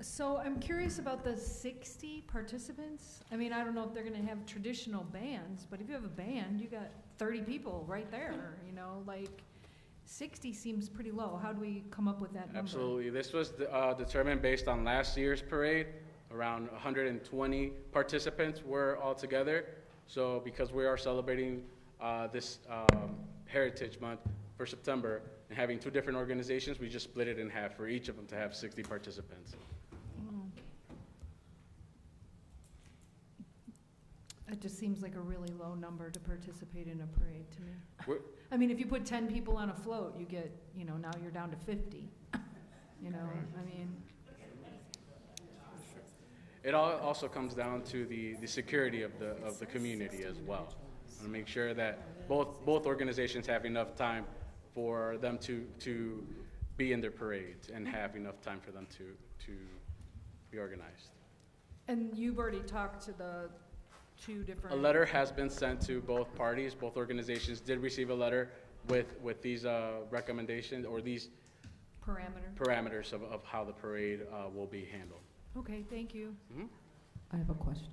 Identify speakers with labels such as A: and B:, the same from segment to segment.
A: So I'm curious about the sixty participants. I mean, I don't know if they're gonna have traditional bands, but if you have a band, you got thirty people right there, you know, like, sixty seems pretty low. How do we come up with that number?
B: Absolutely. This was uh, determined based on last year's parade. Around 120 participants were altogether. So because we are celebrating uh, this um, Heritage Month for September and having two different organizations, we just split it in half for each of them to have 60 participants.
A: It just seems like a really low number to participate in a parade to me.
B: We're-
A: I mean, if you put ten people on a float, you get, you know, now you're down to fifty, you know, I mean,
B: It all also comes down to the, the security of the, of the community as well. And make sure that both, both organizations have enough time for them to, to be in their parades and have enough time for them to, to be organized.
A: and you've already talked to the two
B: A
A: different.
B: letter has been sent to both parties, both organizations did receive a letter with, with these, uh, recommendations or these
A: Parameter.
B: parameters of, of how the parade, uh, will be handled.
A: Okay, thank you.
C: I have a question.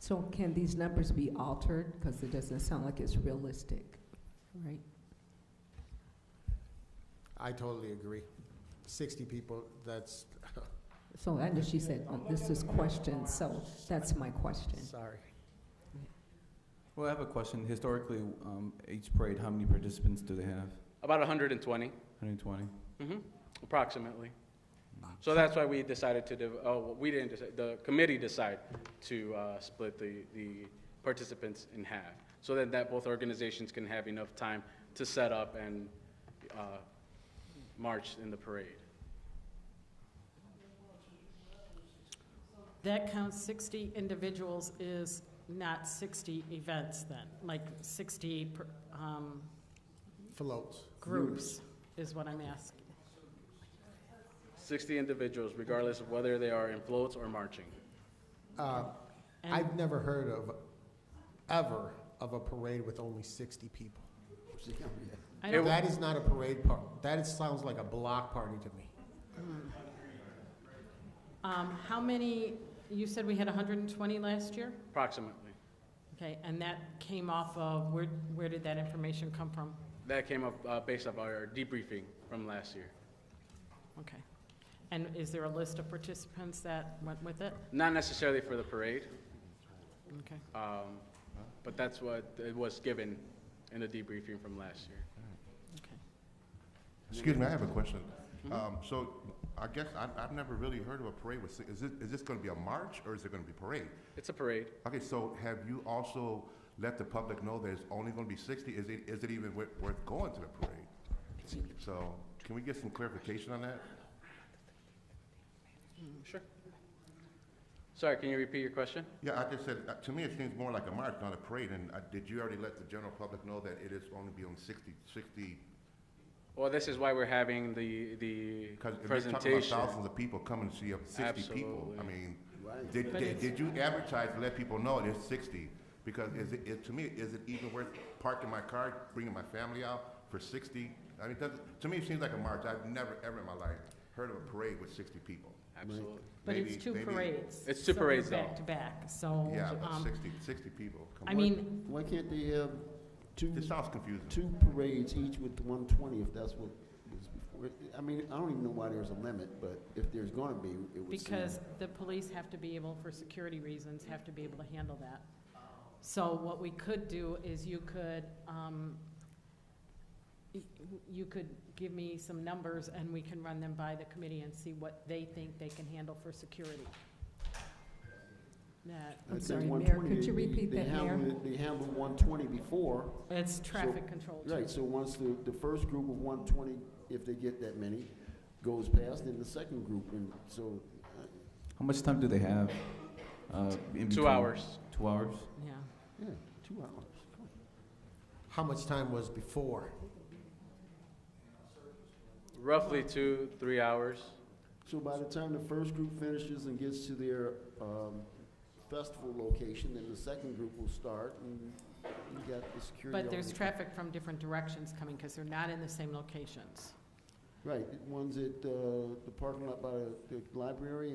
C: So can these numbers be altered? Because it doesn't sound like it's realistic, right?
D: I totally agree. 60 people, that's,
C: So, I know she said, oh, this is question, so that's my question.
D: sorry.
E: Well, I have a question. Historically, um, each parade, how many participants do they have?
B: About hundred and twenty.
E: 120?
B: Mhm, Approximately. So that's why we decided to, div- oh, well, we didn't, decide- the committee decided to uh, split the, the participants in half, so that, that both organizations can have enough time to set up and uh, march in the parade.
F: That counts 60 individuals is not 60 events then, like 60 per- um,
D: Floats.
F: groups is what I'm asking.
B: 60 individuals, regardless of whether they are in floats or marching.
D: Uh,
F: And-
D: I've never heard of, ever, of a parade with only 60 people.
F: I
B: It-
F: don't-
D: That is not a parade par, that is- sounds like a block party to me.
F: um, How many, you said we had 120 last year?
B: Approximately.
F: Okay, and that came off of, where, where did that information come from?
B: That came up uh, based off our debriefing from last year.
F: Okay. And is there a list of participants that went with it?
B: Not necessarily for the parade,
F: Okay.
B: um, but that's what it was given in the debriefing from last year.
F: Okay.
G: Excuse me, I have a question. Um, so I guess I, I've never really heard of a parade with, si- is it, is this gonna be a march or is it gonna be parade?
B: It's a parade.
G: Okay, so have you also let the public know there's only gonna be sixty? Is it, is it even wor- worth going to the parade? So can we get some clarification on that?
B: Sure. Sorry, can you repeat your question?
G: Yeah, I just said, uh, to me, it seems more like a march, not a parade, and uh, did you already let the general public know that it is only be on 60 60
B: Well, this is why we're having the, the
G: Because if you're talking about
B: presentation.
G: thousands of people coming to see a sixty people,
B: Absolutely.
G: I mean, did, did, did you advertise to let people know there's sixty? Because is it, it, to me, is it even worth parking my car, bringing my family out for sixty? I mean, it doesn't, to me, it seems like a march. I've never, ever in my life heard of a parade with sixty people.
B: Absolutely.
F: But it's
G: Maybe-
F: two
G: maybe-
F: parades.
B: It's two
F: so they're
B: parades, though.
F: Back to back, so.
G: Yeah, but
F: um,
G: 60 60 people. Come
F: I
G: on.
F: mean,
H: Why can't they have two,
G: This sounds confusing.
H: two parades each with one twenty if that's what was before? I mean, I don't even know why there's a limit, but if there's gonna be, it would seem.
F: Because the police have to be able, for security reasons, have to be able to handle that. So what we could do is you could, um, y- you could give me some numbers and we can run them by the committee and see what they think they can handle for security. That,
H: I think
C: sorry, Mayor,
H: 120,
C: could you
H: they-
C: repeat
H: they
C: that, Mayor?
H: handled- They handled one twenty before,
F: it's traffic control too.
H: right, so once the, the first group of one twenty, if they get that many, goes past, then the second group, and so, uh,
E: How much time do they have? Uh, in
B: Two
E: between?
B: hours.
E: Two hours?
F: Yeah,
H: yeah, two hours.
D: How much time was before?
B: Roughly two, three hours.
H: So by the time the first group finishes and gets to their um, festival location, then the second group will start, and you got the security.
F: but there's
H: already-
F: traffic from different directions coming because they're not in the same locations.
H: Right, one's at, uh, the parking lot by the- the library and